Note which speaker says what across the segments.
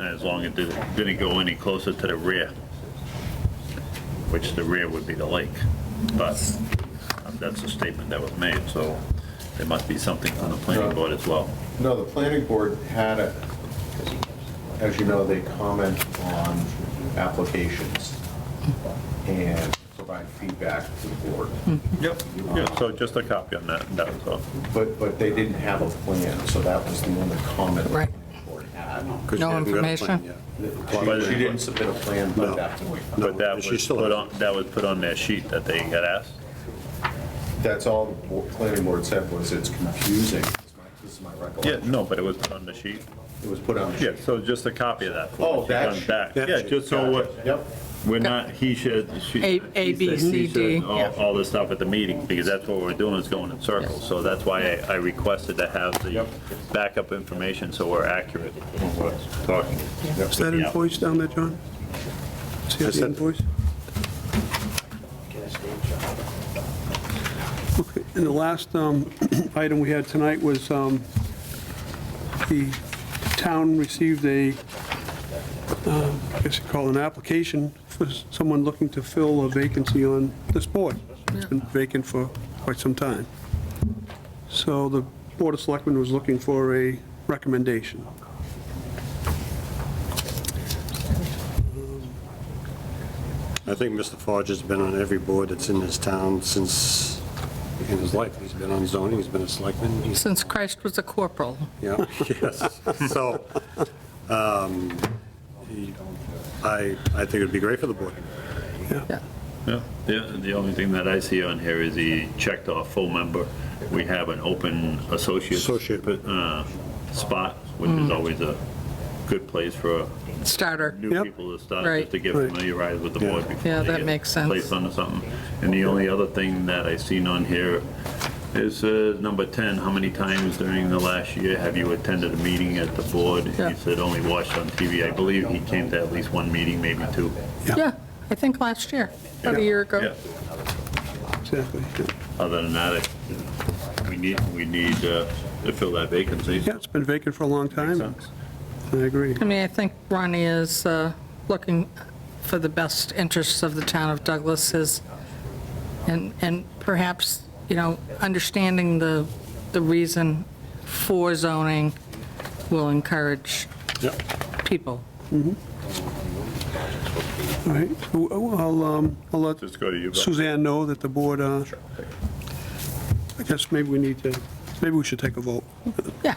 Speaker 1: as long as it didn't go any closer to the rear, which the rear would be the lake. But um, that's a statement that was made, so there must be something on the planning board as well.
Speaker 2: No, the planning board had, a- as you know, they comment on applications and provide feedback to the board,
Speaker 1: Yep. Yeah, Uh, so just a copy on that, that was all.
Speaker 2: but, but they didn't have a plan, so that was the only comment the
Speaker 3: Right.
Speaker 2: planning board had.
Speaker 3: No information?
Speaker 2: She- She didn't submit a plan by that point.
Speaker 1: But that
Speaker 4: she
Speaker 1: was
Speaker 4: still
Speaker 1: put
Speaker 4: has-
Speaker 1: on, that was put on their sheet that they got asked.
Speaker 2: That's all the bo- planning board said was it's confusing. This is my
Speaker 1: Yeah,
Speaker 2: recollection.
Speaker 1: no, but it was put on the sheet.
Speaker 2: It was put on. the
Speaker 1: Yeah,
Speaker 2: sheet.
Speaker 1: so just a copy of that. for
Speaker 2: Oh,
Speaker 1: us.
Speaker 2: that
Speaker 1: Done
Speaker 2: sheet.
Speaker 1: back.
Speaker 4: That
Speaker 1: Yeah,
Speaker 4: sheet.
Speaker 1: just so what,
Speaker 2: Yep,
Speaker 1: We're not, he should, she.
Speaker 3: A- A,
Speaker 1: he
Speaker 3: B,
Speaker 1: said,
Speaker 3: C,
Speaker 1: she said,
Speaker 3: D,
Speaker 1: All,
Speaker 3: yeah.
Speaker 1: all this stuff at the meeting, because that's what we're doing, is going in circles. So that's why I I requested to have the backup information, so we're accurate when we're talking.
Speaker 4: Is that invoice down there, John? See
Speaker 2: I
Speaker 4: the
Speaker 2: said-
Speaker 4: invoice? Okay, And the last um, item we had tonight was um, the town received a, um, I guess you call it an application for someone looking to fill a vacancy on this board. It's been vacant for quite some time. So the Board of Selectmen was looking for a recommendation.
Speaker 5: I think Mr. Forge has been on every board that's in this town since, in his life. He's been on zoning, he's been a selectman, he's,
Speaker 3: Since Christ was a corporal.
Speaker 5: yeah, yes. So, um, he- I, I think it'd be great for the board.
Speaker 3: Yeah.
Speaker 1: Yeah, the, the only thing that I see on here is he checked off full member. We have an open associate.
Speaker 5: Associate.
Speaker 1: uh, Spot, which
Speaker 3: Mm.
Speaker 1: is always a good place for
Speaker 3: Starter.
Speaker 1: new
Speaker 4: Yep.
Speaker 1: people to start,
Speaker 3: Right.
Speaker 1: just to get
Speaker 4: Right.
Speaker 1: familiarized with the
Speaker 5: Yeah.
Speaker 1: board before
Speaker 3: Yeah,
Speaker 1: they
Speaker 3: that
Speaker 1: get
Speaker 3: makes sense.
Speaker 1: Placed onto something. And the only other thing that I seen on here is uh, number 10, how many times during the last year have you attended a meeting at the board?
Speaker 3: Yeah.
Speaker 1: He said only watched on TV. I believe he came to at least one meeting, maybe two.
Speaker 3: Yeah, I think last year, about a year ago.
Speaker 1: Yeah.
Speaker 4: Exactly. yeah.
Speaker 1: Other than that, I- we need, we need uh, to fill that vacancy.
Speaker 4: Yeah, it's been vacant for a long
Speaker 1: Makes
Speaker 4: time.
Speaker 1: sense.
Speaker 4: I agree.
Speaker 3: I mean, I think Ronnie is uh, looking for the best interests of the town of Douglas is, and, and perhaps, you know, understanding the, the reason for zoning will encourage
Speaker 5: Yep.
Speaker 3: people.
Speaker 4: All right, so I'll, um, I'll let
Speaker 1: Just go to you. Bill.
Speaker 4: Suzanne know that the board, uh, I guess maybe we need to, maybe we should take a vote.
Speaker 3: Yeah.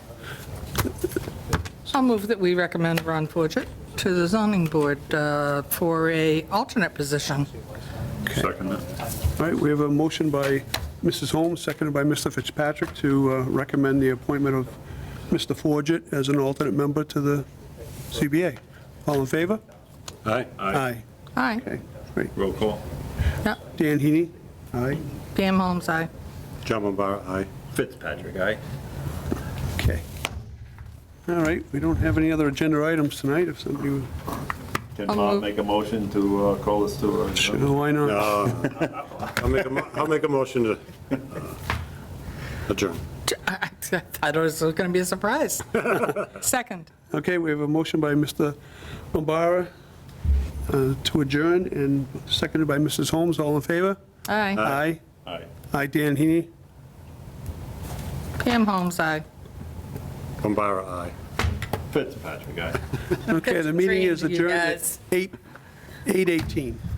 Speaker 3: I'll move that we recommend Ron Forget to the zoning board uh, for a alternate position.
Speaker 1: Second that.
Speaker 4: All right, we have a motion by Mrs. Holmes, seconded by Mr. Fitzpatrick, to uh, recommend the appointment of Mr. Forget as an alternate member to the CBA. All in favor?
Speaker 5: All right?
Speaker 4: Aye.
Speaker 3: Aye.
Speaker 4: Okay, great.
Speaker 1: Roll call.
Speaker 3: Yeah.
Speaker 4: Dan Heaney? Aye.
Speaker 3: Pam Holmes, aye.
Speaker 5: John Mombara, aye.
Speaker 1: Fitzpatrick, aye?
Speaker 4: Okay. All right, we don't have any other agenda items tonight, if somebody, would-
Speaker 1: Can
Speaker 3: I'll
Speaker 1: Bob
Speaker 3: move.
Speaker 1: make a motion to uh, call us to? a-
Speaker 4: Sure, why not?
Speaker 5: Uh, I'll make a, mo- I'll make a motion to uh, adjourn.
Speaker 3: I thought it was going to be a surprise. Second.
Speaker 4: Okay, we have a motion by Mr. Bombara uh, to adjourn, and seconded by Mrs. Holmes. All in favor?
Speaker 3: Aye.
Speaker 4: Aye.
Speaker 1: Aye.
Speaker 4: Aye, Dan Heaney.
Speaker 3: Pam Holmes, aye.
Speaker 5: Mombara, aye.
Speaker 1: Fitzpatrick, aye.
Speaker 4: Okay, the meeting is
Speaker 3: Good dream, you
Speaker 4: adjourned at
Speaker 3: guys.
Speaker 4: eight 8:18.